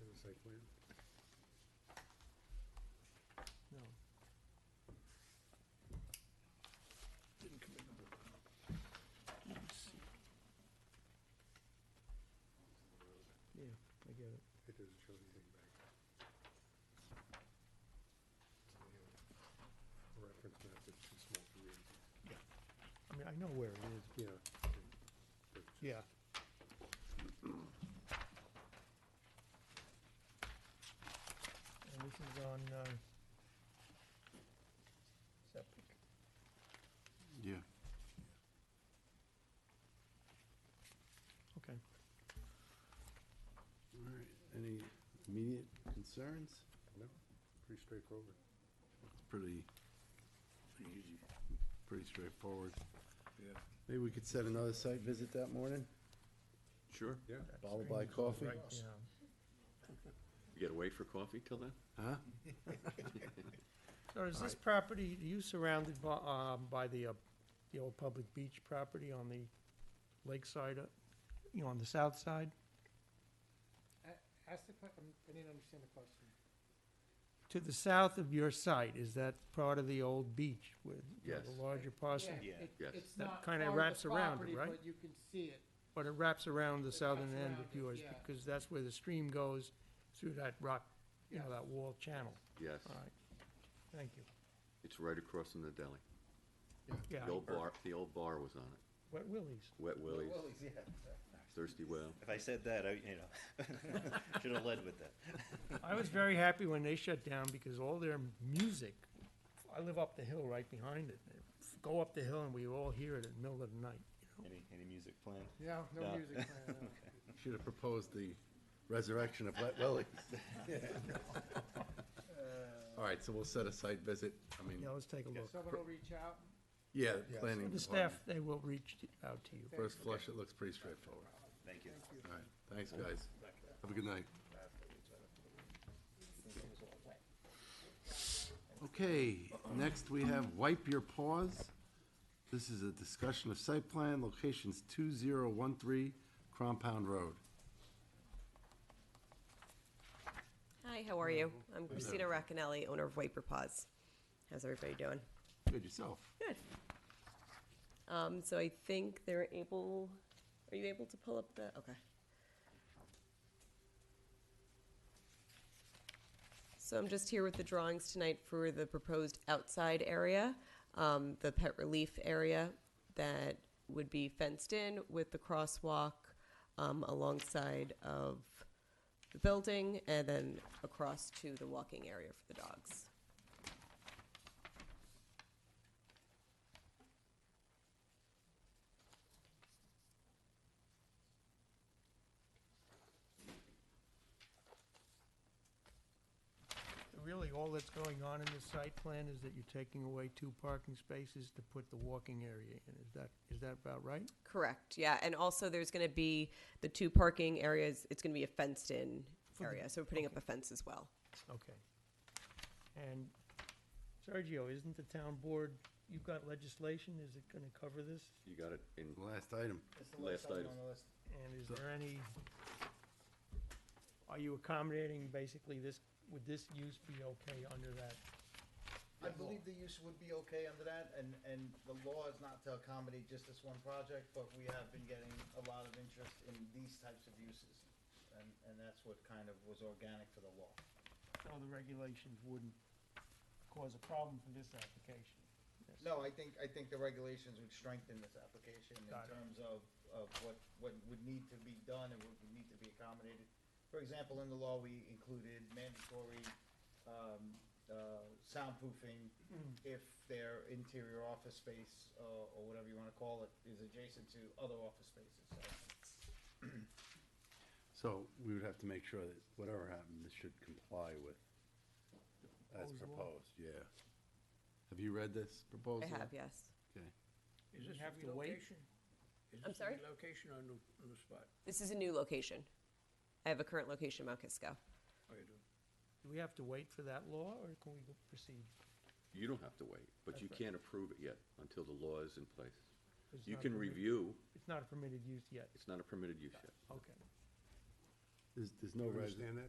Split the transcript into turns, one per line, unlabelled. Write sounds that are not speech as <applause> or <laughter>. plan? No. Didn't come in number one. Let me see. Yeah, I get it.
It doesn't show anything back. The Reference map is too small to read.
I mean, I know where it is.
Yeah. but it's
Yeah. And this is on, uh, septic.
Yeah.
Okay.
All right, any immediate concerns?
No, pretty straightforward.
It's pretty,
Easy,
pretty straightforward.
yeah.
Maybe we could set another site visit that morning,
Sure.
Yeah,
followed by coffee?
Yeah.
You gotta wait for coffee till then?
Huh?
So is this property, are you surrounded by, um, by the, uh, the old public beach property on the lakeside, uh, you know, on the south side?
A- Ask the que, I'm- I didn't understand the question.
To the south of your site, is that part of the old beach with you know, the
Yes.
larger parcel?
Yeah, it-
Yes.
It's
That
not part
kinda
of
wraps
the
around it,
property,
right?
but you can see it.
But it wraps around the
It
southern
wraps
end
around
of
it,
yours,
yeah.
because that's where the stream goes through that rock, you know,
Yes.
that wall channel.
Yes.
All right, thank you.
It's right across from the deli.
Yeah,
The old bar, the old bar was on it.
Wet Willie's.
Wet Willie's, Thirsty Well.
If I said that, I, you know, <laughs> should have led with that.
I was very happy when they shut down because all their music, I live up the hill right behind it. Go up the hill and we all hear it at the middle of the night, you know?
Any, any music planned?
No, no
No.
<laughs>
music playing. no.
Should have proposed the resurrection of Wet <laughs> Willie's. All right, so we'll set a site visit, I mean,
Yeah, let's take a look.
Someone will reach out.
yeah, planning
The
department.
staff, they will reach out to you.
First flush, it looks pretty straightforward.
Thank you.
All right, thanks, guys. Have a good night. Okay, next we have Wipe Your Paws. This is a discussion of site plan, locations 2013 Compound Road.
Hi, how are you? I'm Christina Racanelli, owner of Wiper Paws. How's everybody doing?
Good yourself.
Good. Um, so I think they're able, are you able to pull up the, okay. So I'm just here with the drawings tonight for the proposed outside area, um, the pet relief area that would be fenced in with the crosswalk, um, alongside of the building and then across to the walking area for the dogs.
Really, all that's going on in this site plan is that you're taking away two parking spaces to put the walking area in. Is that, is that about right?
Correct, yeah, and also there's gonna be the two parking areas, it's gonna be a fenced-in
For the-
area, so we're putting up a fence as well.
Okay. And Sergio, isn't the town board, you've got legislation, is it gonna cover this?
You got it in
Last item.
last item.
And is there any, are you accommodating basically this, would this use be okay under that?
I believe the use would be okay under that, and, and the law is not to accommodate just this one project, but we have been getting a lot of interest in these types of uses. And, and that's what kind of was organic to the law.
So the regulations wouldn't cause a problem for this application?
No, I think, I think the regulations would strengthen this application in
Got it.
terms of, of what, what would need to be done and what would need to be accommodated. For example, in the law, we included mandatory, um, uh, soundproofing
Mm-hmm.
if their interior office space, uh, or whatever you wanna call it, is adjacent to other office spaces, so.
So we would have to make sure that whatever happened, this should comply with,
Proposed
as
law.
proposed, yeah. Have you read this proposal?
I have, yes.
Okay.
Is this a
have to wait?
relocation? Is
I'm
this a
sorry?
Relocation or new, new spot?
This is a new location. I have a current location, in Mount Kisco.
Oh, you do?
Do we have to wait for that law, or can we go- proceed?
You don't have to wait, but you
That's right.
can't approve it yet until the law is in place.
It's
You
not
can
permitted-
review,
It's not a permitted use yet,
it's not a permitted use yet.
okay.
There's, there's no
You
resi-
understand that?